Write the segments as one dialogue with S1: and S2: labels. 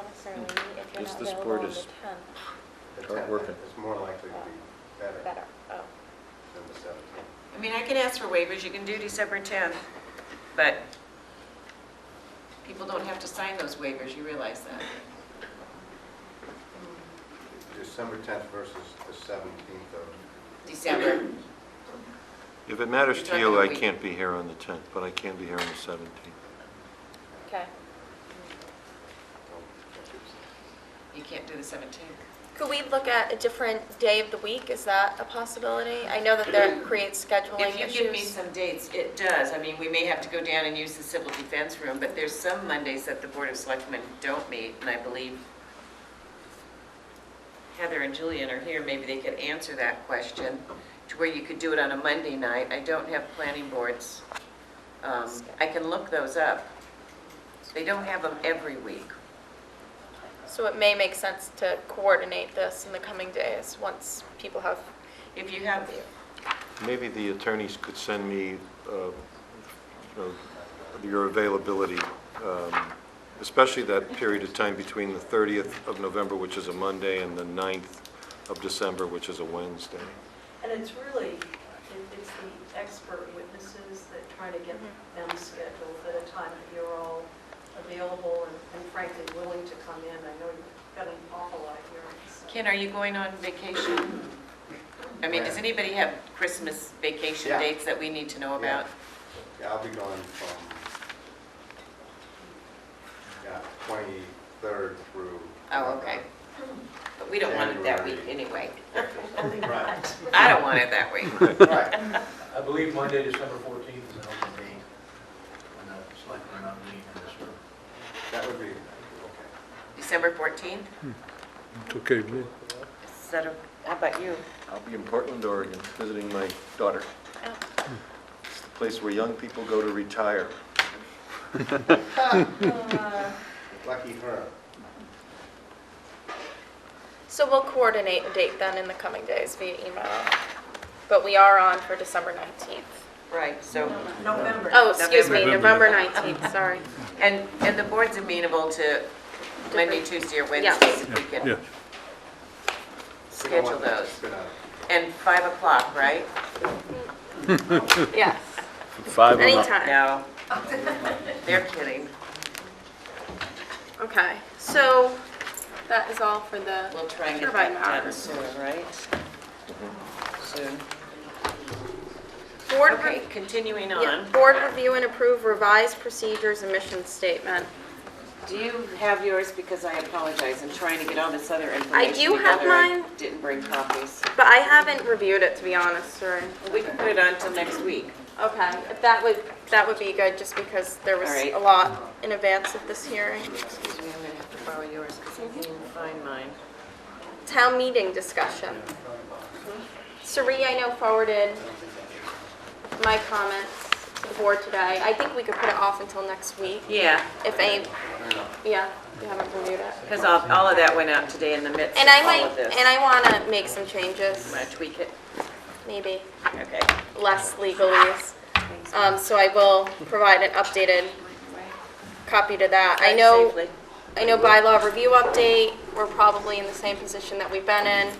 S1: necessarily meet if you're
S2: Yes,
S1: not
S2: this
S1: available
S2: board
S1: on the
S2: is-
S1: 10th.
S3: The
S2: Start
S3: 10th
S2: working.
S3: is more likely to be better than
S1: Better, oh.
S3: the 17th.
S4: I mean, I can ask for waivers, you can do December 10th, but people don't have to sign those waivers, you realize that?
S3: December 10th versus the 17th of,
S4: December,
S2: If it matters to
S4: You're talking
S2: you, I
S4: a week.
S2: can't be here on the 10th, but I can be here on the 17th.
S1: Okay.
S3: oh,
S4: you can't do the 17th.
S1: Could we look at a different day of the week? Is that a possibility? I know that that creates scheduling
S4: If
S1: issues.
S4: you give me some dates, it does, I mean, we may have to go down and use the civil defense room, but there's some Mondays that the Board of Selectmen don't meet, and I believe Heather and Julian are here, maybe they could answer that question, to where you could do it on a Monday night. I don't have planning boards. Um, I can look those up. They don't have them every week.
S1: So it may make sense to coordinate this in the coming days, once people have,
S4: If you have,
S2: Maybe the attorneys could send me, uh, you know, your availability, um, especially that period of time between the 30th of November, which is a Monday, and the 9th of December, which is a Wednesday.
S5: And it's really, it- it's the expert witnesses that try to get them scheduled at a time that you're all available and- and frankly willing to come in. I know you've got an awful lot of hearings. so-
S4: Ken, are you going on vacation? I mean, does
S3: Where?
S4: anybody have Christmas vacation
S3: Yeah.
S4: dates that we need to know about?
S3: yeah, I'll be gone from, yeah, 23rd through.
S4: Oh, okay. But we don't want it that week anyway.
S3: November. Right,
S4: I don't want it that week.
S3: right.
S6: I believe Monday, December 14th is an open meeting when the selectmen are not meeting in this room.
S3: That would be, okay.
S4: December 14th?
S7: It's okay with me.
S4: Is that a- How about you?
S2: I'll be in Portland, Oregon, visiting my daughter.
S1: Oh.
S2: It's the place where young people go to retire.
S3: Lucky her.
S1: so we'll coordinate a date then in the coming days via email. But we are on for December 19th.
S4: Right, so,
S5: November.
S1: Oh, excuse me, November
S7: November.
S1: 19th, sorry.
S4: and, and the board's amenable to Monday, Tuesday, or
S1: Yeah.
S4: Wednesday, if we
S7: Yeah,
S4: can
S3: We don't
S4: schedule
S3: want that to
S4: those.
S3: spin out.
S4: And 5 o'clock, right?
S1: Yes,
S2: Five
S1: anytime.
S4: No. They're kidding.
S1: Okay, so that is all for the
S4: We'll try and get
S1: Turbine
S4: that done
S1: hours.
S4: soon, right? Soon.
S1: board
S4: Okay,
S1: review.
S4: continuing
S1: Yeah,
S4: on,
S1: Board review and approve revised procedures and mission statement.
S4: do you have yours? Because I apologize, I'm trying to get all this other information
S1: I do have
S4: together. I
S1: mine.
S4: Didn't bring copies.
S1: But I haven't reviewed it, to be honest, sorry.
S4: Well, We can put it on till next week.
S1: Okay, if that would, that would be good, just because there was
S4: All right.
S1: a lot in advance of this hearing.
S4: Excuse me, I'm gonna have to borrow yours because I can't even find mine.
S1: Town meeting discussion. Sari, I know forwarded my comments to the board today. I think we could put it off until next week,
S4: Yeah,
S1: if any, yeah, you haven't reviewed it.
S4: because all, all of that went out today in the midst of
S1: And I
S4: all of
S1: might,
S4: this.
S1: and I want to make some changes,
S4: Want to tweak it?
S1: maybe
S4: Okay.
S1: less legalese. Um, So I will provide an updated copy to that. I know.
S4: Safely.
S1: I know bylaw review update, we're probably in the same position that we've been in.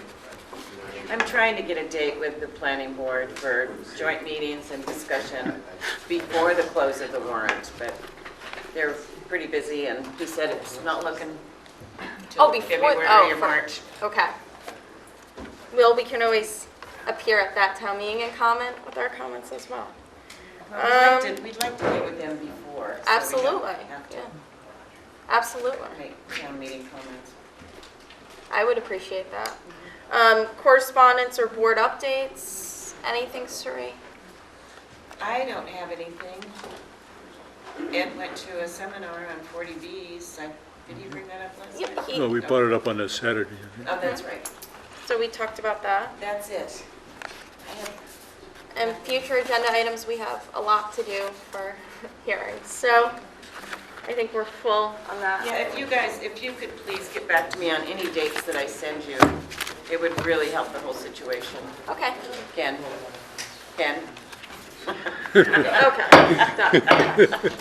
S4: I'm trying to get a date with the planning board for joint meetings and discussion before the close of the warrant, but they're pretty busy, and he said it's not looking
S1: Oh,
S4: till
S1: before,
S4: February
S1: oh,
S4: or March.
S1: for, okay. Well, we can always appear at that town meeting and comment with our comments as well.
S4: Well, We'd
S1: Um,
S4: like to- we'd like to meet with them before. so we don't
S1: Absolutely,
S4: have to
S1: yeah, absolutely.
S4: Make town meeting comments.
S1: I would appreciate that. Um, correspondence or board updates, anything, Suri?
S4: I don't have anything. Ed went to a seminar on 40Bs. I- Did he bring that up last
S1: Yep,
S4: night?
S1: he-
S7: no, we brought it up on a Saturday.
S4: Oh, that's right.
S1: So we talked about that.
S4: That's it. I have
S1: And future agenda items, we have a lot to do for hearings, so I think we're full on that.
S4: Yeah, if you guys, if you could please get back to me on any dates that I send you, it would really help the whole situation.
S1: Okay,
S4: Ken? Ken?
S1: okay, done.